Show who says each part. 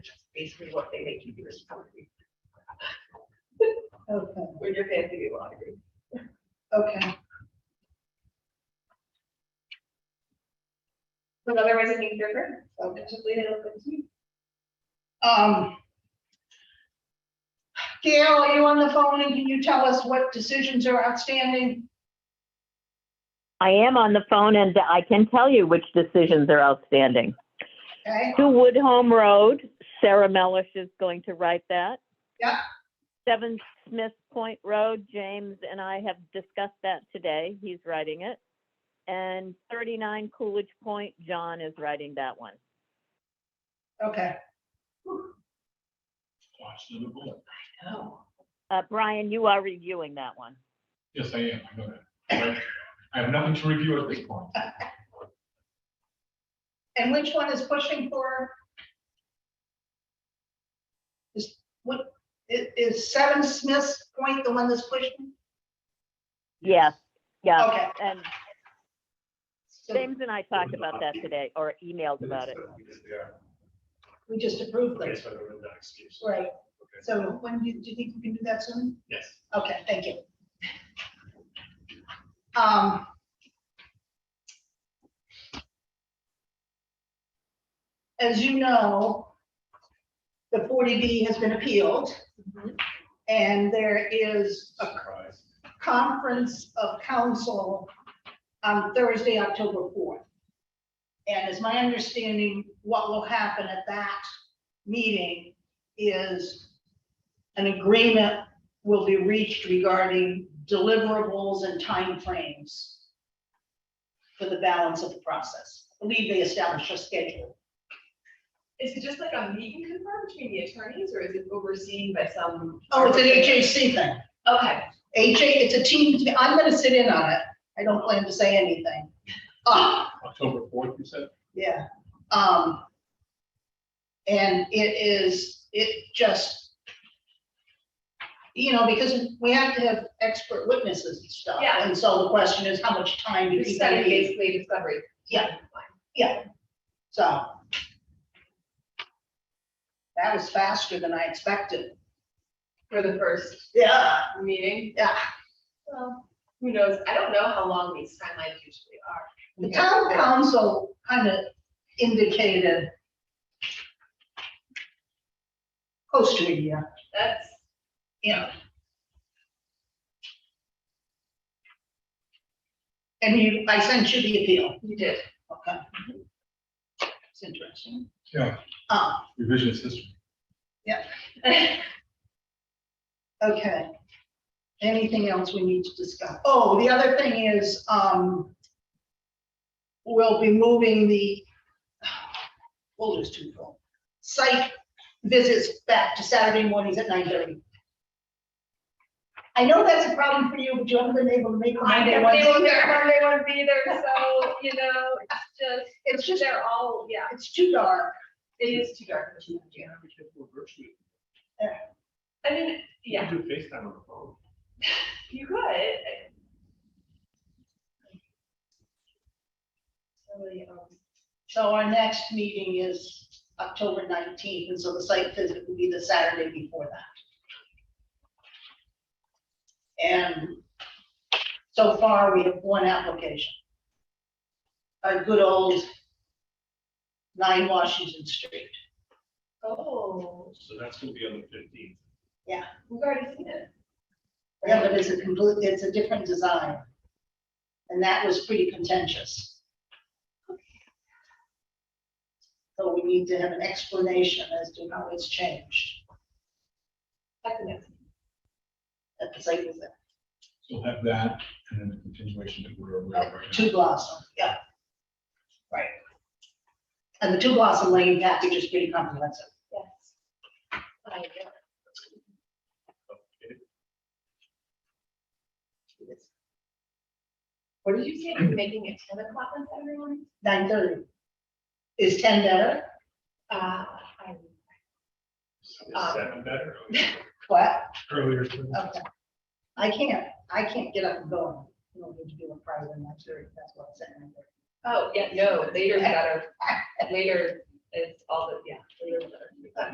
Speaker 1: basically what they make you do is come.
Speaker 2: Okay,
Speaker 1: When you're paying to be laundry.
Speaker 2: okay.
Speaker 3: But otherwise, I think they're fair.
Speaker 2: Okay.
Speaker 3: Just leave it open to you.
Speaker 2: Um. Gail, are you on the phone and can you tell us what decisions are outstanding?
Speaker 4: I am on the phone and I can tell you which decisions are outstanding.
Speaker 2: Okay,
Speaker 4: To Woodhome Road, Sarah Mellish is going to write that.
Speaker 2: Yeah.
Speaker 4: Seven Smith Point Road, James and I have discussed that today. He's writing it. And 39 Coolidge Point, John is writing that one.
Speaker 2: okay.
Speaker 5: Watch the bullet.
Speaker 1: Oh.
Speaker 4: Uh, Brian, you are reviewing that one.
Speaker 5: Yes, I am. I know that. But I have nothing to review at this point.
Speaker 2: And which one is pushing for? Is what, i- is Seven Smith's Point the one that's pushing?
Speaker 4: Yes, yeah.
Speaker 2: Okay.
Speaker 4: And
Speaker 2: Oh, so
Speaker 4: James and I talked about that today or emailed about it.
Speaker 2: We just approved
Speaker 6: Okay,
Speaker 2: this,
Speaker 6: so there was that excuse.
Speaker 2: right? So when, do you do you think we can do that soon?
Speaker 6: Yes.
Speaker 2: Okay, thank you. Um. As you know, the 40B has been appealed and there is a
Speaker 5: Surprise.
Speaker 2: conference of council on Thursday, October 4th. And as my understanding, what will happen at that meeting is an agreement will be reached regarding deliverables and timeframes for the balance of the process. I believe they established a schedule.
Speaker 1: Is it just like a meet and confer between the attorneys or is it overseen by some?
Speaker 2: Oh, it's an HAC thing.
Speaker 1: Okay,
Speaker 2: HA, it's a team, I'm gonna sit in on it. I don't plan to say anything. Uh,
Speaker 5: October fourth, you said?
Speaker 2: Yeah, um. And it is, it just. You know, because we have to have expert witnesses and stuff.
Speaker 1: Yeah.
Speaker 2: And so the question is, how much time do
Speaker 1: you're
Speaker 2: you spend?
Speaker 1: studying basically discovery.
Speaker 2: Yeah. So. That was faster than I expected.
Speaker 1: For the first
Speaker 2: Yeah.
Speaker 1: meeting.
Speaker 2: Yeah.
Speaker 1: Well, who knows? I don't know how long these timelines usually are.
Speaker 2: The town council kind of indicated. Close to a year.
Speaker 1: That's,
Speaker 2: Yeah. And you, I sent you the appeal,
Speaker 1: you did.
Speaker 2: okay? It's interesting.
Speaker 5: Yeah.
Speaker 2: Uh,
Speaker 5: Revisionist history.
Speaker 2: okay. Anything else we need to discuss? Oh, the other thing is, um, we'll be moving the, we'll lose two people. Site visits back to Saturday mornings at nine thirty. I know that's a problem for you, but you haven't been able to make the
Speaker 3: I
Speaker 2: Monday
Speaker 3: know they
Speaker 2: ones
Speaker 3: won't,
Speaker 2: either.
Speaker 3: they won't be there, so, you know, it's
Speaker 2: It's
Speaker 3: just,
Speaker 2: just,
Speaker 3: they're all, yeah,
Speaker 2: it's too dark.
Speaker 1: It is too dark. for them to do. I mean, yeah,
Speaker 6: You can do FaceTime on the phone.
Speaker 1: you could. I- Really, um,
Speaker 2: So our next meeting is October nineteenth, and so the site visit will be the Saturday before that. And so far, we have one application. A good old nine Washington Street.
Speaker 1: Oh,
Speaker 6: So that's gonna be on the fifteenth.
Speaker 1: we've already seen it.
Speaker 2: Yeah, but it's a complete, it's a different design. And that was pretty contentious. So we need to have an explanation as to how it's changed.
Speaker 1: That's the next.
Speaker 2: at the site visit,
Speaker 5: So we'll have that and then the continuation to where we're at right now.
Speaker 2: Two Blossom, yeah. Right. And the Two Blossom Lane package is pretty comprehensive.
Speaker 1: Yes. I get it. What did you say? You're making it ten o'clock on Saturday morning?
Speaker 2: Nine thirty. Is ten better?
Speaker 1: Uh, I,
Speaker 6: Is seven better?
Speaker 2: What?
Speaker 6: Earlier.
Speaker 2: Okay. I can't, I can't get up and go. You don't need to do a Friday night series, that's what I'm saying.
Speaker 1: oh, yeah, no, later is better. Later is all the, yeah, later is better.